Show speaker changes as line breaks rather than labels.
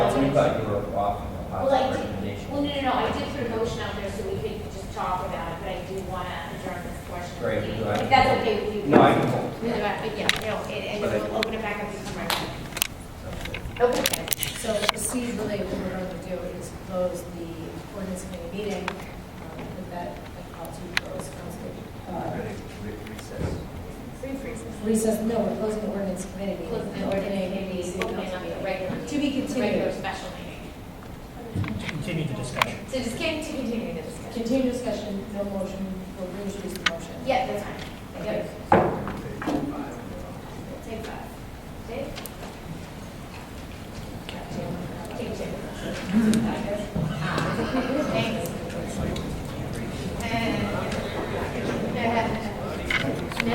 I thought you were offering a
Well,
positive
I did,
recommendation.
well, no, no, no, I did put a motion out there so we could just talk about it, but I do want to adjourn this portion. of the
Great,
meeting.
do I-
If that's okay with you.
No, I can hold.
No, I- Yeah, no, and, and
But I-
we'll open it back up to come right back. Okay.
So procedurally, what we're going to do is close the ordinance committee meeting. um, With that, I call to close council.
Ready, re- recess.
Free freezes.
Recess, no, we're closing the ordinance committee meeting.
Close the ordinary meeting,
City
opening
council
up the
meeting.
regular.
To be
meeting, Regular
continued.
special meeting.
Continue the discussion.
So just can to continue the discussion.
Continue discussion, no motion, we'll reintroduce the motion.
Yeah, that's fine.
Okay.
Yep.